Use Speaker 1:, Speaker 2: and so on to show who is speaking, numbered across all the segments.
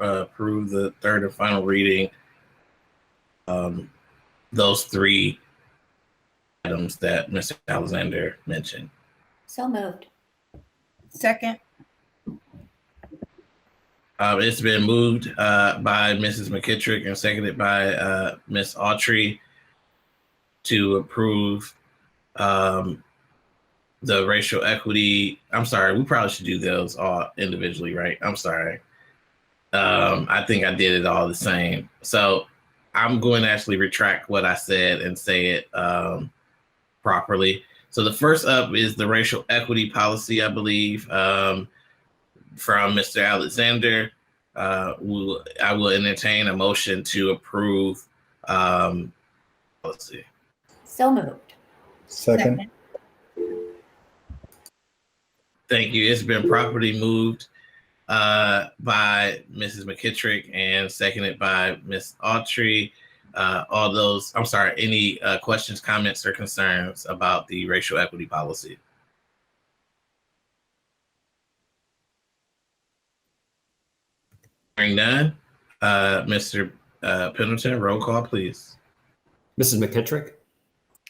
Speaker 1: uh, approve the third and final reading. Um, those three items that Mr. Alexander mentioned.
Speaker 2: So moved.
Speaker 3: Second,
Speaker 1: Uh, it's been moved uh, by Mrs. McKittrick and seconded by uh, Ms. Autry to approve um, the racial equity. I'm sorry, we probably should do those all individually, right? I'm sorry. Um, I think I did it all the same. So I'm going to actually retract what I said and say it um, properly. So the first up is the racial equity policy, I believe. Um, from Mr. Alexander. Uh, will, I will entertain a motion to approve. Um, let's see.
Speaker 2: So moved.
Speaker 4: Second,
Speaker 3: second,
Speaker 1: Thank you. It's been properly moved uh, by Mrs. McKittrick and seconded by Ms. Autry. Uh, all those, I'm sorry, any uh, questions, comments, or concerns about the racial equity policy? Hearing none, uh, Mr. Uh, Pendleton, roll call, please.
Speaker 5: Mrs. McKittrick,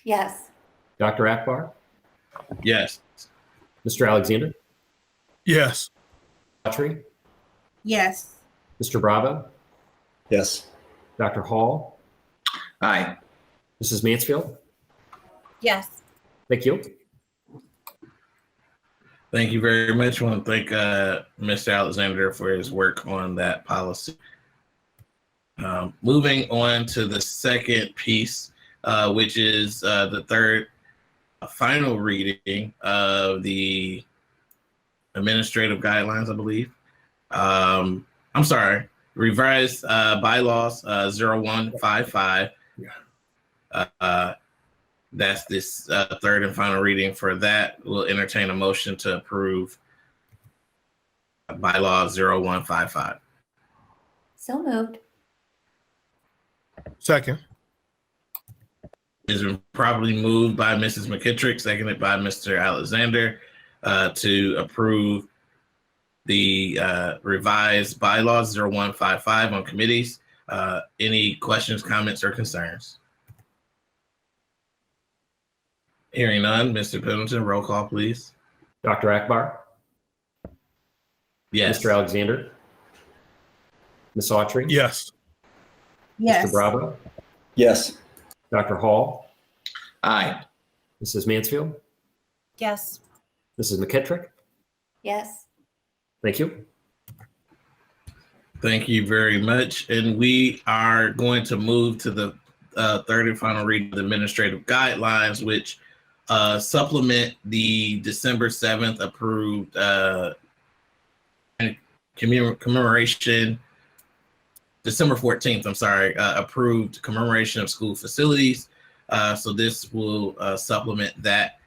Speaker 2: Yes.
Speaker 5: Dr. Akbar,
Speaker 1: Yes.
Speaker 5: Mr. Alexander,
Speaker 6: yes,
Speaker 5: Autry,
Speaker 3: yes,
Speaker 5: Mr. Bravo,
Speaker 4: yes,
Speaker 5: Dr. Hall,
Speaker 7: aye,
Speaker 5: Mrs. Mansfield.
Speaker 3: yes,
Speaker 5: Thank you.
Speaker 1: Thank you very much. I want to thank uh, Mr. Alexander for his work on that policy. Um, moving on to the second piece, uh, which is uh, the third uh, final reading of the administrative guidelines, I believe. Um, I'm sorry, revised uh, bylaws uh, 0155. Uh, that's this uh, third and final reading for that. We'll entertain a motion to approve bylaw 0155.
Speaker 2: So moved.
Speaker 6: second,
Speaker 1: It's been properly moved by Mrs. McKittrick, seconded by Mr. Alexander uh, to approve the uh, revised bylaws 0155 on committees. Uh, any questions, comments, or concerns? Hearing none, Mr. Pendleton, roll call, please.
Speaker 5: Dr. Akbar,
Speaker 1: Yes.
Speaker 5: Mr. Alexander, Ms. Autry,
Speaker 6: yes,
Speaker 3: yes.
Speaker 5: Mr. Bravo,
Speaker 4: yes,
Speaker 5: Dr. Hall,
Speaker 7: aye,
Speaker 5: Mrs. Mansfield,
Speaker 3: Yes,
Speaker 5: Mrs. McKittrick.
Speaker 2: Yes.
Speaker 5: Thank you.
Speaker 1: Thank you very much. And we are going to move to the uh, third and final reading of the administrative guidelines, which uh, supplement the December 7th approved uh, commem- commemoration, December 14th, I'm sorry, uh, approved commemoration of school facilities. Uh, so this will uh, supplement that.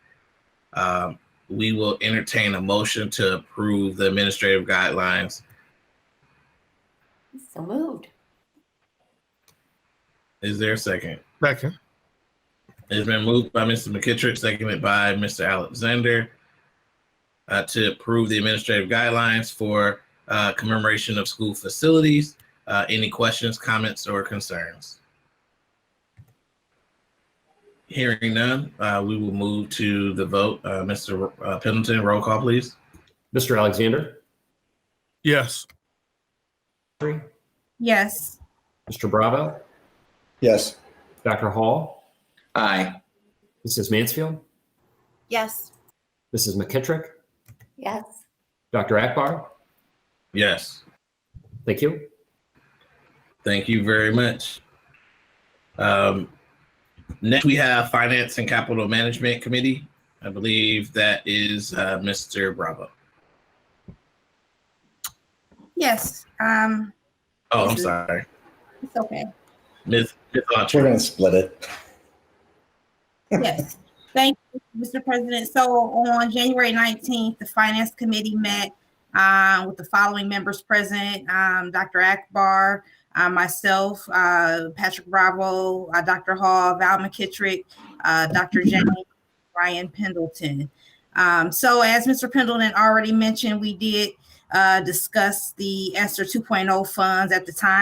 Speaker 1: Um, we will entertain a motion to approve the administrative guidelines
Speaker 2: So moved.
Speaker 1: Is there a second?
Speaker 6: second,
Speaker 1: It's been moved by Mr. McKittrick, seconded by Mr. Alexander uh, to approve the administrative guidelines for uh, commemoration of school facilities. Uh, any questions, comments, or concerns? Hearing none, uh, we will move to the vote. Uh, Mr. Ro- uh, Pendleton, roll call, please.
Speaker 5: Mr. Alexander,
Speaker 6: yes,
Speaker 5: Autry,
Speaker 3: yes,
Speaker 5: Mr. Bravo,
Speaker 4: yes,
Speaker 5: Dr. Hall,
Speaker 7: aye,
Speaker 5: Mrs. Mansfield,
Speaker 3: yes,
Speaker 5: Mrs. McKittrick,
Speaker 2: Yes.
Speaker 5: Dr. Akbar.
Speaker 1: Yes.
Speaker 5: Thank you.
Speaker 1: Thank you very much. Um, next, we have Finance and Capital Management Committee. I believe that is uh, Mr. Bravo.
Speaker 3: yes. Um,
Speaker 1: Oh, I'm sorry,
Speaker 3: it's okay.
Speaker 1: Ms. Ms.
Speaker 4: we're
Speaker 1: Autry.
Speaker 4: gonna split it.
Speaker 3: Yes, thank you, Mr. President. So on January nineteenth, the Finance Committee met uh, with the following members present, um, Dr. Akbar, uh, myself, uh, Patrick Bravo, uh, Dr. Hall, Val McKittrick, uh, Dr. James, Ryan Pendleton. Um, So as Mr. Pendleton already mentioned, we did uh, discuss the ESSER 2.0 funds at the time.